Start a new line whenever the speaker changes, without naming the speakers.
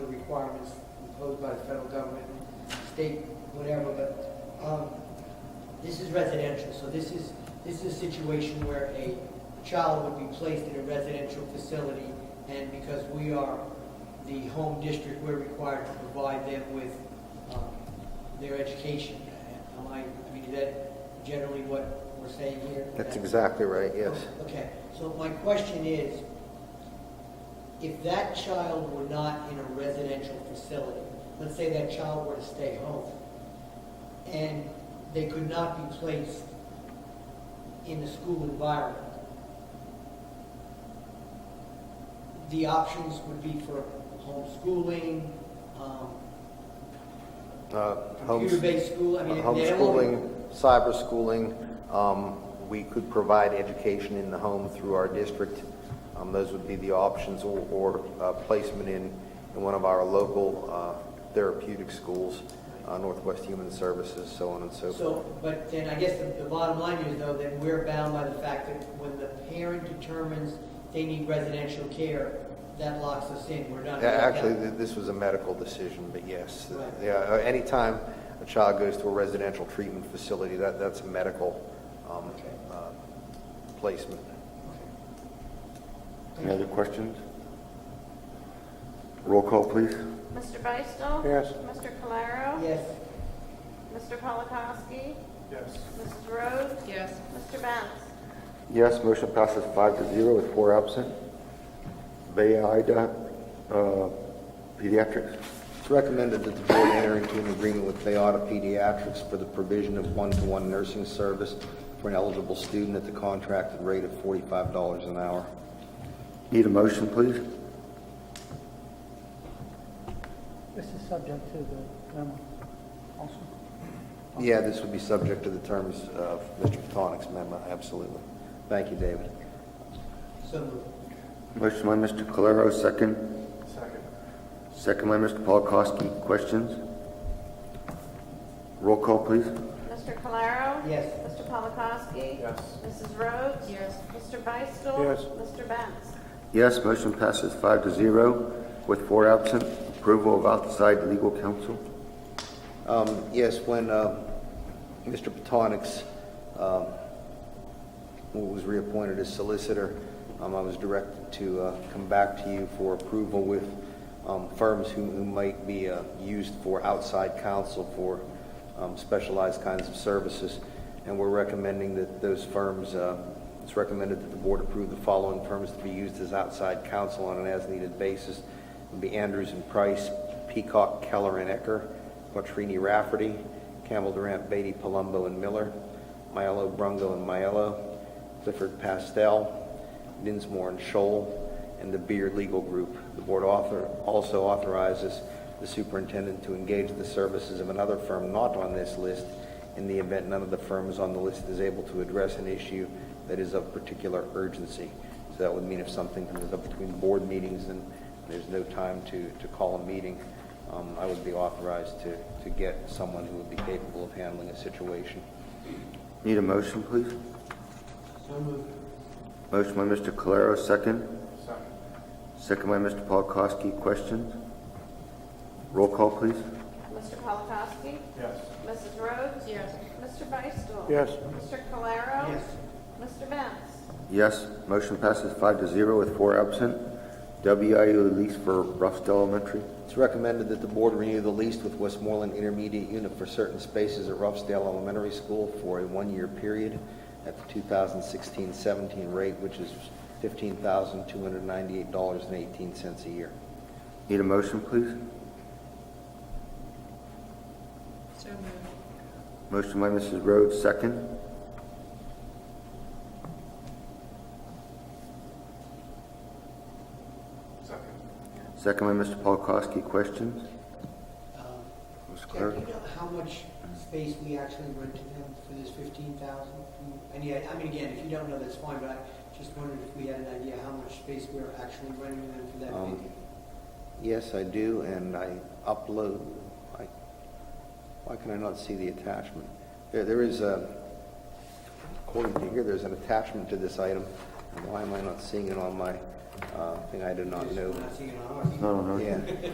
requirements imposed by the federal government, state, whatever, but, um, this is residential, so this is, this is a situation where a child would be placed in a residential facility, and because we are the home district, we're required to provide them with, um, their education. Am I, I mean, is that generally what we're saying here?
That's exactly right, yes.
Okay, so my question is, if that child were not in a residential facility, let's say that child were to stay home, and they could not be placed in the school environment, the options would be for homeschooling, um,
Uh, homes-
computer-based school, I mean, they don't wanna-
Homeschooling, cyberschooling, um, we could provide education in the home through our district. Um, Those would be the options, or- or uh, placement in, in one of our local uh, therapeutic schools, uh, Northwest Human Services, so on and so forth.
So, but then I guess the, the bottom line is though, that we're bound by the fact that when the parent determines they need residential care, that locks us in, we're not.
Yeah, Actually, th- this was a medical decision, but yes.
uh, Right.
Yeah, uh, anytime a child goes to a residential treatment facility, that, that's a medical um,
Okay.
uh, placement.
Any other questions? Roll call, please.
Mr. Beistel?
Yes.
Mr. Calero?
Yes,
Mr. Polakowski?
yes,
Mrs. Rhodes?
yes,
Mr. Benz?
Yes, motion passes five to zero with four absent. Bayida uh, Pediatrics.
It's recommended that the board enter into an agreement with Bayada Pediatrics for the provision of one-to-one nursing service for an eligible student at the contracted rate of $45 an hour.
Need a motion, please?
This is subject to the memo also.
Yeah, this would be subject to the terms of Mr. Patonik's memo, absolutely. Thank you, David.
so moved.
Motion by Mr. Calero, second.
second,
Second by Mr. Polakowski. Questions? Roll call, please.
Mr. Calero?
Yes.
Mr. Polakowski?
yes,
Mrs. Rhodes?
Yes.
Mr. Beistel?
Yes.
Mr. Benz?
Yes, motion passes five to zero with four absent. Approval of outside legal counsel.
Um, Yes, when uh, Mr. Patonik's, um, was reappointed as solicitor, um, I was directed to uh, come back to you for approval with um, firms who who might be uh, used for outside counsel for um, specialized kinds of services. And we're recommending that those firms, uh, it's recommended that the board approve the following firms to be used as outside counsel on an as-needed basis. It would be Andrews and Price, Peacock, Keller and Ecker, Quattrini Rafferty, Campbell Durant, Beatty, Palumbo, and Miller, Myelo, Brungo, and Myelo, Clifford Pastel, Dinsmore and Shoal, and the Beard Legal Group. The board author, also authorizes the superintendent to engage the services of another firm not on this list in the event none of the firms on the list is able to address an issue that is of particular urgency. So that would mean if something comes up between board meetings and there's no time to, to call a meeting, um, I would be authorized to, to get someone who would be capable of handling a situation.
Need a motion, please?
So moved.
Motion by Mr. Calero, second.
second,
Second by Mr. Polakowski. Questions? Roll call, please.
Mr. Polakowski?
yes,
Mrs. Rhodes?
yes,
Mr. Beistel?
Yes.
Mr. Calero?
Yes.
Mr. Benz?
Yes, motion passes five to zero with four absent. WIU lease for Ruffs Elementary.
It's recommended that the board renew the lease with Westmoreland Intermediate Unit for certain spaces at Ruffsdale Elementary School for a one-year period at the 2016-17 rate, which is $15,298.18 a year.
Need a motion, please?
so moved,
Motion by Mrs. Rhodes, second.
second,
Second by Mr. Polakowski. Questions?
Um,
Mr.
Jack, do
Clerk?
you know how much space we actually rented them for this fifteen thousand? And yeah, I mean, again, if you don't know, that's fine, but I just wondered if we had an idea how much space we we're actually renting them for that
Um,
figure.
Yes, I do, and I upload, I, why can I not see the attachment? There, there is a, according to here, there's an attachment to this item. Why am I not seeing it on my, uh, thing I did not
Just
know?
Not seeing it on ours.
No, no, no.
Yeah.